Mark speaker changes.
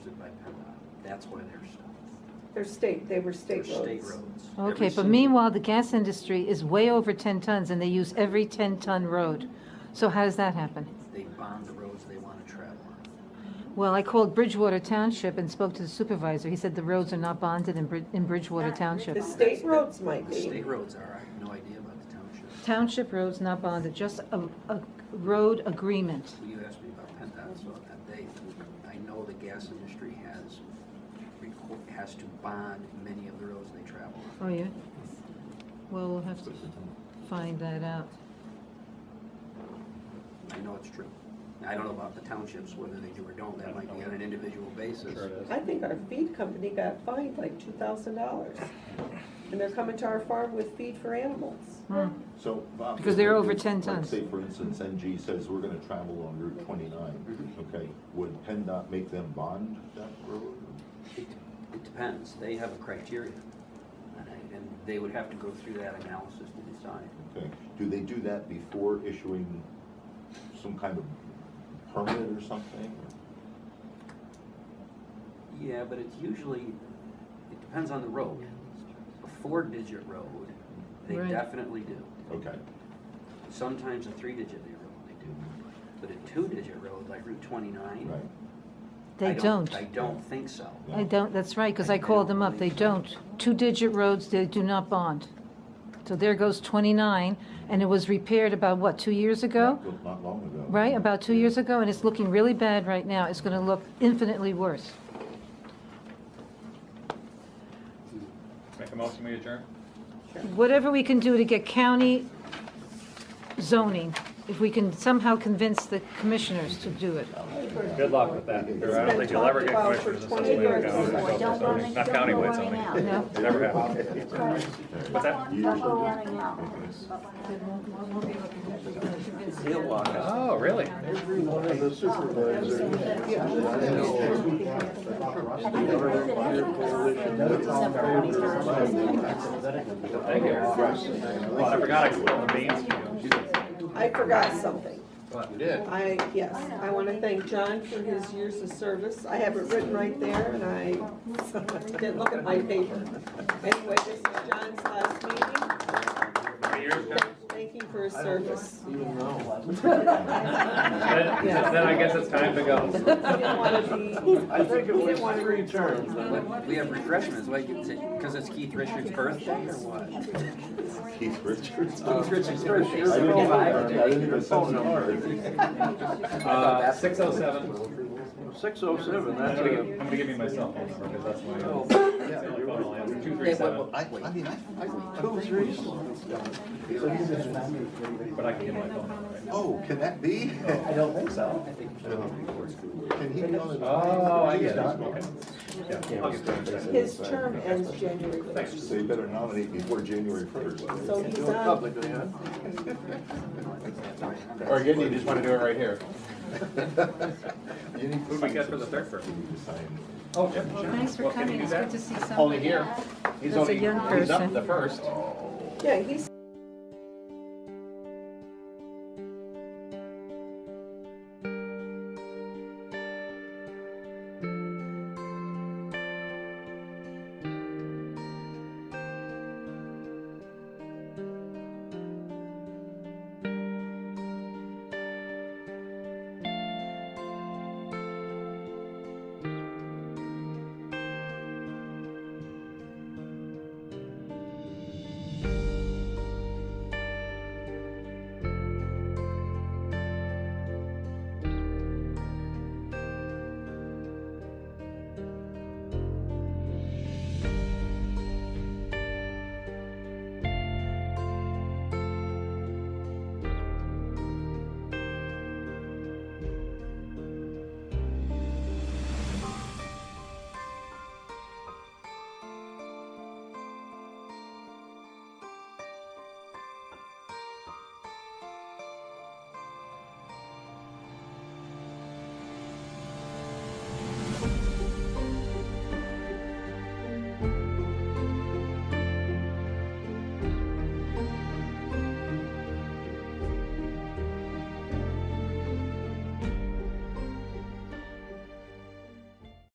Speaker 1: That's why they're,
Speaker 2: They're state, they were
Speaker 1: they're
Speaker 2: state
Speaker 1: state
Speaker 2: roads.
Speaker 1: roads. Every
Speaker 3: Okay, but
Speaker 1: single-
Speaker 3: meanwhile, the gas industry is way over 10 tons and they use every 10-ton road. So how does that happen?
Speaker 1: They bond the roads they want to travel on.
Speaker 3: Well, I called Bridgewater Township and spoke to the supervisor. He said the roads are not bonded in Brid- in Bridgewater Township.
Speaker 2: The state roads might
Speaker 1: The
Speaker 2: be.
Speaker 1: state roads are, I have no idea about the township.
Speaker 3: Township roads not bonded, just a, a road agreement.
Speaker 1: Well, You asked me about PennDOT, so on that day, I know the gas industry has, reco- has to bond many of the roads they travel on.
Speaker 3: Oh, yeah? Well, we'll have to find that out.
Speaker 1: I know it's true. I don't know about the townships, whether they do or don't, that might be on an individual basis.
Speaker 4: Sure it is.
Speaker 2: I think our feed company got fined like two thousand dollars. And they're coming to our farm with feed for animals.
Speaker 3: Hmm.
Speaker 5: So, Bob.
Speaker 3: Because they're over
Speaker 5: if-
Speaker 3: 10
Speaker 5: like,
Speaker 3: tons.
Speaker 5: Say, for instance, NG says we're gonna travel on Route twenty-nine,
Speaker 4: Mm-hmm.
Speaker 5: okay, would PennDOT make them bond that road?
Speaker 1: It it depends, they have a criteria, and I- and they would have to go through that analysis to decide.
Speaker 5: Okay, do they do that before issuing some kind of permit or something?
Speaker 1: Yeah, but it's usually, it depends on the road. A four-digit road, they
Speaker 3: Right.
Speaker 1: definitely do.
Speaker 5: Okay,
Speaker 1: Sometimes a three-digit road, they do. But a two-digit road, like Route twenty-nine?
Speaker 5: right,
Speaker 3: They
Speaker 1: I
Speaker 3: don't.
Speaker 1: I don't think so.
Speaker 5: Yeah.
Speaker 3: I don't, that's right, because I called them up, they don't. Two-digit roads, they do not bond. So there goes 29, and it was repaired about, what, two years ago?
Speaker 5: not not long ago.
Speaker 3: Right, about two years ago, and it's looking really bad right now. It's going to look infinitely worse.
Speaker 4: Make a motion, we adjourn?
Speaker 3: Whatever we can do to get county zoning, if we can somehow convince the commissioners to do it.
Speaker 4: Good luck with that. I don't think you'll ever get commissioners in such a way to go.
Speaker 6: Don't run,
Speaker 4: Not
Speaker 6: don't go
Speaker 4: countywide
Speaker 6: running
Speaker 4: zoning.
Speaker 6: out.
Speaker 3: No?
Speaker 4: Never happened.
Speaker 6: Don't
Speaker 4: What's that?
Speaker 6: go- Don't go running out.
Speaker 1: They'll walk us
Speaker 4: Oh, really? Thank you. Well, I forgot I spilled the beans.
Speaker 2: I forgot something. I, yes, I want to thank John for his years of service. I have it written right there, and I didn't look at my paper. Anyway, this is John's last meeting.
Speaker 4: How many years ago?
Speaker 2: Thank you for his service.
Speaker 4: Then then I guess it's time to go.
Speaker 2: He didn't want to be,
Speaker 7: I think it
Speaker 2: he didn't want
Speaker 7: was
Speaker 2: to
Speaker 7: three terms.
Speaker 1: What, we have refreshments, like, because it's Keith Richards' birthday or what?
Speaker 5: Keith Richards.
Speaker 1: Keith Richards' birthday is
Speaker 7: I didn't get
Speaker 1: seventy-five
Speaker 7: that.
Speaker 5: I
Speaker 1: today.
Speaker 5: didn't even sense it.
Speaker 4: Uh, six oh seven.
Speaker 7: Six oh
Speaker 4: I'm
Speaker 7: seven, that's
Speaker 4: gonna give,
Speaker 7: a,
Speaker 4: I'm gonna give you my cell phone number, because that's my. that's my phone line. Two three
Speaker 1: Yeah, well,
Speaker 4: seven,
Speaker 1: well, I- I mean, I-
Speaker 7: two threes.
Speaker 4: but I can give my phone number right now.
Speaker 5: Oh, can that be? I don't think so. Can he be on it?
Speaker 4: Oh, I get it, okay. Yeah, I'll get that.
Speaker 2: his term ends January first.
Speaker 5: So you better nominate before January first.
Speaker 2: So he's
Speaker 7: Do it
Speaker 2: on,
Speaker 7: publicly, huh?
Speaker 4: Or again, you just wanna do it right here.
Speaker 5: You need
Speaker 4: Who do we get for the third person? Oh, Jim.
Speaker 3: Thanks for
Speaker 4: Well, can you
Speaker 3: coming,
Speaker 4: do
Speaker 3: it's good
Speaker 4: that?
Speaker 3: to see
Speaker 4: Only
Speaker 3: somebody.
Speaker 4: here. He's
Speaker 3: That's a
Speaker 4: only,
Speaker 3: young
Speaker 4: he's up
Speaker 3: person.
Speaker 4: the first.
Speaker 2: yeah, he's